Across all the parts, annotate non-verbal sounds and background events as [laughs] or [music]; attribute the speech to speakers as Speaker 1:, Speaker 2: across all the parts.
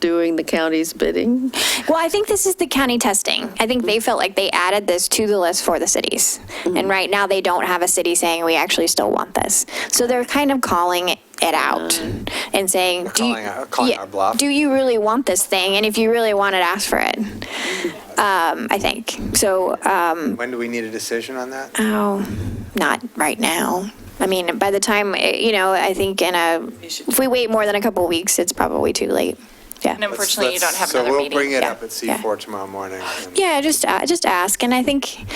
Speaker 1: doing the county's bidding?
Speaker 2: Well, I think this is the county testing. I think they felt like they added this to the list for the cities.
Speaker 3: Mm-hmm.
Speaker 2: And right now, they don't have a city saying, we actually still want this. So they're kind of calling it out and saying, do you-
Speaker 3: Mm. calling our- calling
Speaker 2: yeah,
Speaker 3: our bluff.
Speaker 2: Do you really want this thing? And if you really want it, ask for it. Um, I think. So, um,
Speaker 3: When do we need a decision on that?
Speaker 4: Uh,
Speaker 2: Oh, not right now. I mean, by the time, eh, you know, I think in a, if we wait more than a couple of weeks, it's probably too late.
Speaker 4: And
Speaker 2: Yeah.
Speaker 4: unfortunately, you don't
Speaker 3: Let's-
Speaker 4: have
Speaker 3: so
Speaker 4: another meeting.
Speaker 3: we'll bring it
Speaker 2: Yeah,
Speaker 3: up at
Speaker 2: yeah.
Speaker 3: C4 tomorrow morning. and-
Speaker 2: Yeah, just, uh, just ask. And I think,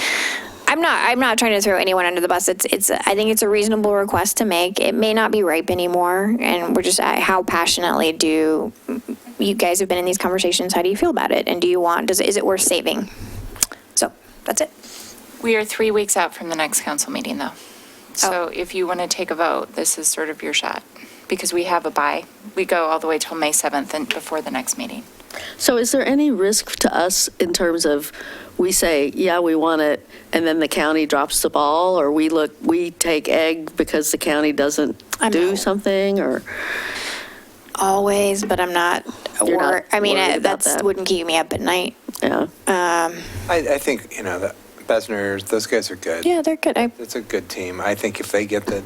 Speaker 2: I'm not, I'm not trying to throw anyone under the bus. It's, it's, I think it's a reasonable request to make. It may not be ripe anymore. And we're just, uh, how passionately do you guys have been in these conversations? How do you feel about it? And do you want, does, it- is it worth saving? So that's it.
Speaker 4: We are three weeks out from the next council meeting, though. So if you want to take a vote, this is sort of your shot, because we have a bye. We go all the way till May 7th and before the next meeting.
Speaker 1: So is there any risk to us in terms of, we say, yeah, we want it, and then the county drops the ball, or we look, we take egg because the county doesn't
Speaker 2: I'm
Speaker 1: do
Speaker 2: out.
Speaker 1: something, or?
Speaker 2: always, but I'm not.
Speaker 1: You're
Speaker 2: wor-
Speaker 1: not
Speaker 2: I mean,
Speaker 1: worried
Speaker 2: uh,
Speaker 1: about
Speaker 2: that's
Speaker 1: that.
Speaker 2: wouldn't keep me up at night.
Speaker 1: Yeah,
Speaker 3: I, I think, you know, the Besners, those guys are good.
Speaker 2: Yeah, they're good. I,
Speaker 3: It's a good team. I think if they get the,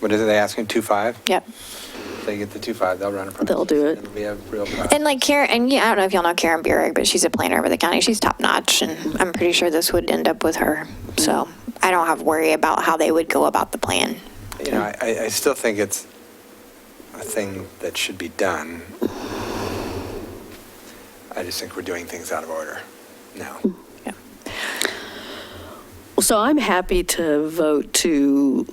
Speaker 3: what is it, they asking, 2.5?
Speaker 2: yep.
Speaker 3: If they get the 2.5, they'll run a process.
Speaker 1: They'll do it.
Speaker 3: It'll be a real process.
Speaker 2: And like Karen, and yeah, I don't know if y'all know Karen Burek, but she's a planner over the county. She's top notch, and I'm pretty sure this would end up with her. So I don't have worry about how they would go about the plan.
Speaker 3: You know, I- I, I still think it's a thing that should be done. I just think we're doing things out of order now.
Speaker 2: Yeah.
Speaker 1: so I'm happy to vote to,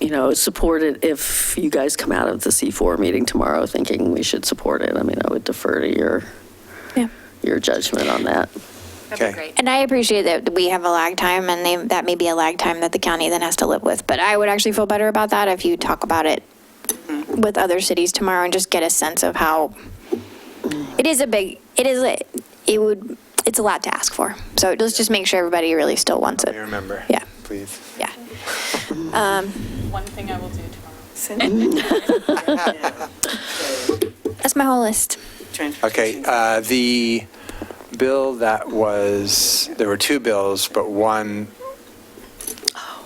Speaker 1: you know, support it if you guys come out of the C4 meeting tomorrow thinking we should support it. I mean, I would defer to your,
Speaker 2: Yeah.
Speaker 1: your judgment on that.
Speaker 4: That'd
Speaker 3: Okay.
Speaker 4: be great.
Speaker 2: And I appreciate that we have a lag time, and they, that may be a lag time that the county then has to live with. But I would actually feel better about that if you talk about it with other cities tomorrow and just get a sense of how, it is a big, it is, a- it would, it's a lot to ask for. So let's just make sure everybody really still wants
Speaker 3: Help
Speaker 2: it.
Speaker 3: me remember.
Speaker 2: Yeah.
Speaker 3: Please.
Speaker 2: Yeah. Um,
Speaker 5: One thing I will do tomorrow.
Speaker 2: [laughs] That's my whole list.
Speaker 3: Okay, uh, the bill that was, there were two bills, but one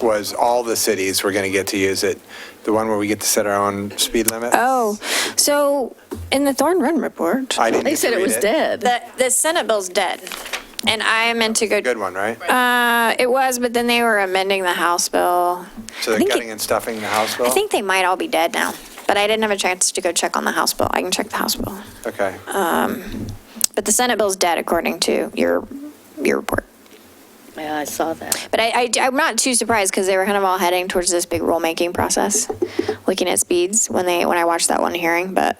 Speaker 3: was all the cities were going to get to use it. The one where we get to set our own speed limit?
Speaker 2: Oh, so in the Thorn Run report,
Speaker 3: I didn't
Speaker 1: They
Speaker 3: get to
Speaker 1: said it
Speaker 3: read
Speaker 1: was dead.
Speaker 2: the, the Senate bill's dead. And I meant to go.
Speaker 3: Good one, right?
Speaker 2: Uh, it was, but then they were amending the House bill.
Speaker 3: So
Speaker 2: I
Speaker 3: they're
Speaker 2: think it-
Speaker 3: gutting and stuffing the House bill?
Speaker 2: I think they might all be dead now, but I didn't have a chance to go check on the House bill. I can check the House bill.
Speaker 3: Okay.
Speaker 1: uh,
Speaker 2: But the Senate bill's dead according to your, your report.
Speaker 1: Yeah, I saw that.
Speaker 2: But I, I, am not too surprised because they were kind of all heading towards this big rulemaking process, looking at speeds when they, when I watched that one hearing, but,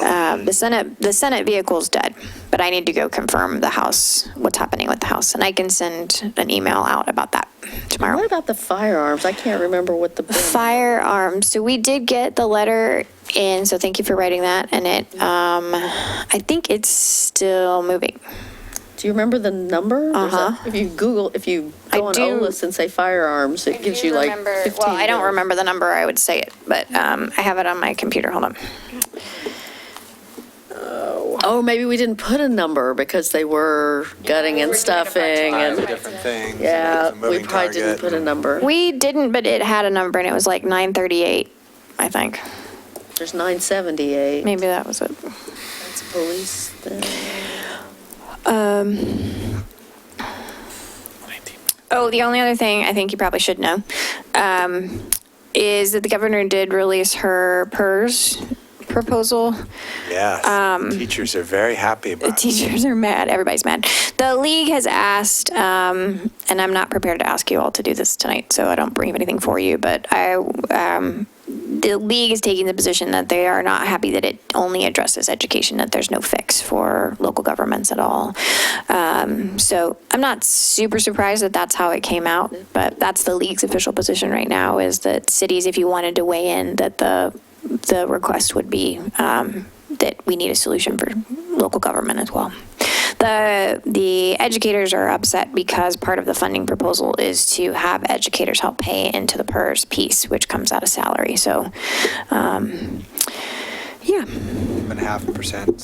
Speaker 2: um, the Senate, the Senate vehicle's dead. But I need to go confirm the House, what's happening with the House, and I can send an email out about that tomorrow.
Speaker 1: What about the firearms? I can't remember what the.
Speaker 2: Firearms. So we did get the letter in, so thank you for writing that. And it, um, I think it's still moving.
Speaker 1: Do you remember the number? There's a-
Speaker 2: Uh-huh.
Speaker 1: If you Google, if you
Speaker 2: I
Speaker 1: go on
Speaker 2: do-
Speaker 1: OList and say firearms, it gives you like 15.
Speaker 2: Well, I don't
Speaker 1: bills.
Speaker 2: remember the number, I would say it, but, um, I have it on my computer. Hold on.
Speaker 1: Oh, maybe we didn't put a number because they were gutting and stuffing
Speaker 3: It's a
Speaker 1: and,
Speaker 3: different thing. so
Speaker 1: yeah,
Speaker 3: it's
Speaker 1: we
Speaker 3: a moving
Speaker 1: probably didn't
Speaker 3: target.
Speaker 1: put a number.
Speaker 2: We didn't, but it had a number and it was like 938, I think.
Speaker 1: There's 978.
Speaker 2: Maybe that was it.
Speaker 1: It's police thing.
Speaker 2: Um, oh, the only other thing I think you probably should know um, is that the governor did release her PERS proposal.
Speaker 1: Um,
Speaker 3: Yes. Teachers are very happy
Speaker 2: The
Speaker 3: about
Speaker 2: [laughs]
Speaker 3: it.
Speaker 2: teachers are mad. Everybody's mad. The league has asked, um, and I'm not prepared to ask you all to do this tonight, so I don't bring anything for you. But I, um, the league is taking the position that they are not happy that it only addresses education, that there's no fix for local governments at all. Um, so I'm not super surprised that that's how it came out, but that's the league's official position right now is that cities, if you wanted to weigh in, that the the request would be um, that we need a solution for local government as well. The, the educators are upset because part of the funding proposal is to have educators help pay into the PERS piece, which comes out of salary. So, um, yeah,
Speaker 3: One half percent